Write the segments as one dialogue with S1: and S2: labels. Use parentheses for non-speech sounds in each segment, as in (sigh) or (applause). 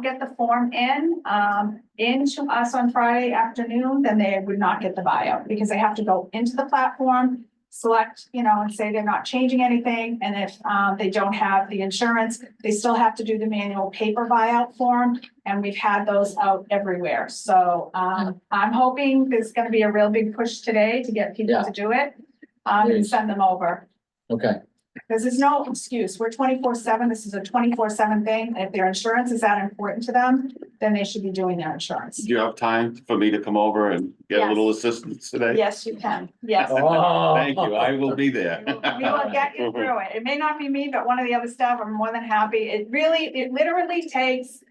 S1: get the form in, um, into us on Friday afternoon, then they would not get the buyout because they have to go into the platform, select, you know, and say they're not changing anything. And if, um, they don't have the insurance, they still have to do the manual paper buyout form. And we've had those out everywhere. So, um, I'm hoping there's gonna be a real big push today to get people
S2: Yeah.
S1: to do it. Um, and
S2: Please.
S1: send them over.
S2: Okay,
S1: Because there's no excuse. We're twenty-four seven. This is a twenty-four seven thing. If their insurance is that important to them, then they should be doing their insurance.
S3: Do you have time for me to come over and get a little assistance today?
S1: Yes, you can. Yes.
S2: Oh.
S3: Thank you, I will be
S1: (laughs)
S3: there. (laughs)
S1: We will get you through it. It may not be me, but one of the other staff, I'm more than happy. It really, it literally takes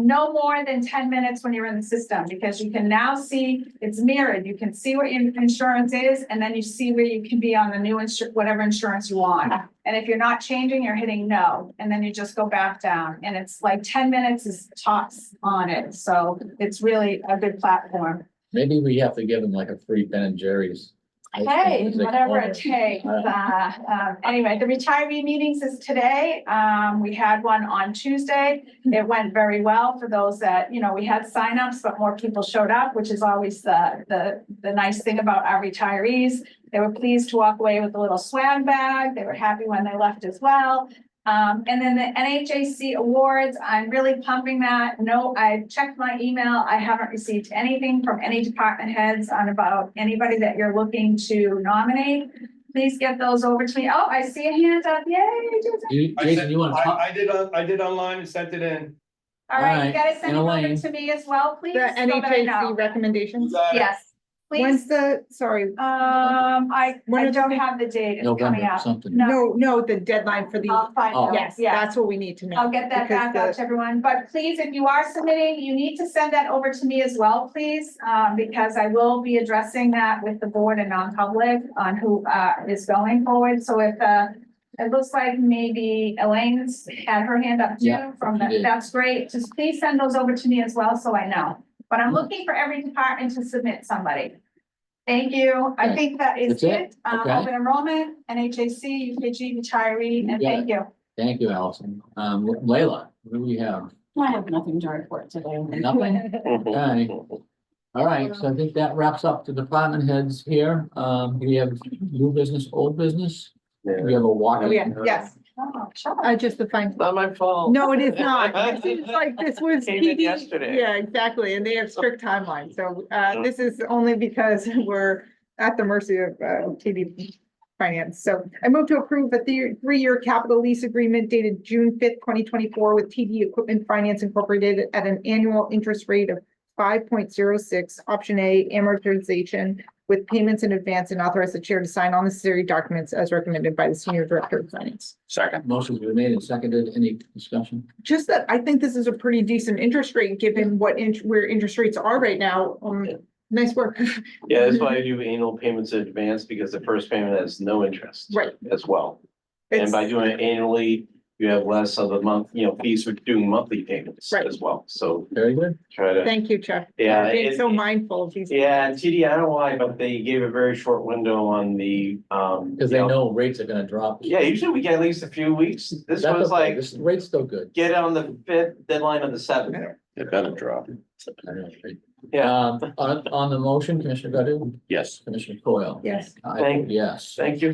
S1: no more than ten minutes when you're in the system, because you can now see, it's mirrored. You can see what your insurance is, and then you see where you can be on the new insur, whatever insurance you want. And if you're not changing, you're hitting no, and then you just go back down, and it's like ten minutes is tops on it, so it's really a good platform.
S2: maybe we have to give them like a free Ben and Jerry's.
S1: Hey,
S2: Is it
S1: whatever it
S2: called?
S1: takes.
S2: All
S1: Uh, um, Anyway, the retiree meetings is today. Um, We had one on Tuesday. It went very well for those that, you know, we had signups, but more people showed up, which is always the, the, the nice thing about our retirees. They were pleased to walk away with a little swag bag. They were happy when they left as well. Um, And then the NHAC awards, I'm really pumping that. No, I checked my email. I haven't received anything from any department heads on about anybody that you're looking to nominate. Please get those over to me. Oh, I see a hand up. Yay. Jason.
S2: You-
S4: I
S2: Jason,
S4: sent-
S2: you want to?
S4: I, I did, on- I did online and sent it in.
S1: All right, you
S2: Alright,
S1: guys send it
S2: and
S1: over
S2: Elaine.
S1: to me as well, please.
S5: The
S1: so that I know.
S5: NHAC recommendations?
S1: Yes,
S5: When's
S1: please.
S5: the, sorry,
S1: Um, I,
S5: When
S1: I
S5: is
S1: don't
S5: it?
S1: have the date. It's coming
S2: November
S1: up.
S2: something.
S1: No.
S5: no, no, the deadline for the,
S1: I'll find
S2: Oh.
S1: out.
S5: yes,
S1: Yeah.
S5: that's what we need to know.
S1: I'll get that
S5: because
S1: back out to everyone, but please, if you are submitting, you need to send that over to me as well, please. Um, because I will be addressing that with the board and non-public on who, uh, is going forward, so if, uh, it looks like maybe Elaine's had her hand up
S2: Yeah,
S1: too, from
S2: she
S1: the,
S2: did.
S1: that's great, just please send those over to me as well, so I know. But I'm looking for every department to submit somebody. Thank you, I
S2: Okay.
S1: think that is
S2: That's it?
S1: it, um,
S2: Okay.
S1: open enrollment, NHAC, UKG retiree, and
S2: Yeah.
S1: thank you.
S2: Thank you, Allison. Um, Leila, what do we have?
S6: I have nothing to report today.
S2: Nothing? Okay. All right, so I think that wraps up the department heads here. Um, we have new business, old business. We have a walk.
S5: Oh, yeah, yes,
S1: Oh, sure.
S5: I just defined,
S7: Not my fault.
S5: no,
S7: (laughs)
S5: it is not. This is like, this was.
S7: Came in
S5: PD
S7: yesterday.
S5: Yeah, exactly, and they have strict timelines, so, uh, this is only because (laughs) we're at the mercy of, uh, TD Finance. So I move to approve the three- three-year capital lease agreement dated June fifth, twenty twenty-four with TD Equipment Finance Incorporated at an annual interest rate of five point zero six, option A amortization with payments in advance and authorize the chair to sign all necessary documents as recommended by the senior director of finance.
S3: Second.
S2: Motion's been made and seconded. Any discussion?
S5: Just that I think this is a pretty decent interest rate, given what, int- where interest rates are right now. Um,
S4: Yeah.
S5: nice work.
S4: Yeah, that's why I do annual payments in advance, because the first payment has no interest.
S5: Right.
S4: As well.
S5: (laughs) It's-
S4: And by doing it annually, you have less of the month, you know, fees for doing monthly payments
S5: Right.
S4: as well, so
S2: Very good.
S4: try to.
S5: Thank you, Chuck.
S4: Yeah,
S5: Being
S4: it-
S5: so mindful of these.
S4: Yeah, and TD, I don't know why, but they gave a very short window on the, um.
S2: Because
S4: you
S2: they know rates are gonna drop.
S4: Yeah, usually we get at least a few weeks. This
S2: That's
S4: was
S2: okay.
S4: like,
S2: This rate's still good.
S4: get on the fifth, deadline on the seventh.
S3: (laughs) It better drop.
S2: I know, right?
S4: Yeah,
S2: Um, on, on the motion, Commissioner Godu,
S3: Yes.
S2: Commissioner Coyle.
S5: Yes.
S2: I
S4: Thank-
S2: vote Yes.
S4: thank you.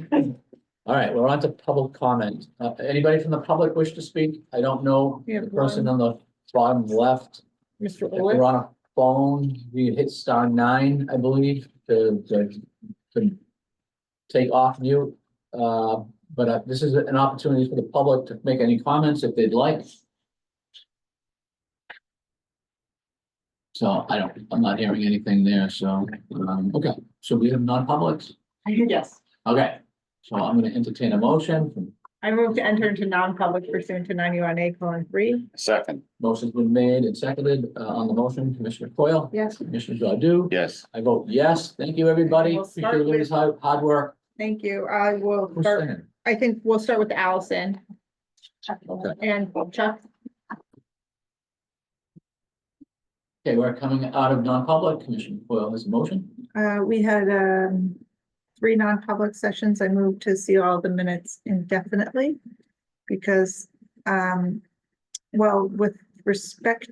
S2: All right, we're on to public comment. Uh, anybody from the public wish to speak? I don't know
S5: We have
S2: the person on the bottom left.
S5: Mr.
S2: If you're on a phone, you hit star nine, I believe, to, to, to take off mute. Uh, but uh, this is an opportunity for the public to make any comments if they'd like. So I don't, I'm not hearing anything there, so, um, okay, so we have non-publics,
S5: Yes.
S2: okay. So I'm gonna entertain a motion, from
S5: I move to enter into non-public pursuant to ninety-one A colon three.
S3: Second.
S2: Motion's been made and seconded uh, on the motion, Commissioner Coyle,
S5: Yes.
S2: Commissioner Godu.
S3: Yes.
S2: I vote yes. Thank you, everybody.
S5: We'll
S2: Appreciate
S5: start
S2: everybody's hard, hard work.
S5: Thank you. I will
S2: Who's
S5: start,
S2: second?
S5: I think we'll start with Allison
S2: Okay,
S5: and Chuck.
S2: Okay, we're coming out of non-public. Commissioner Foil has a motion.
S5: Uh, we had, um, three non-public sessions. I moved to see all the minutes indefinitely. Because, um, well, with respect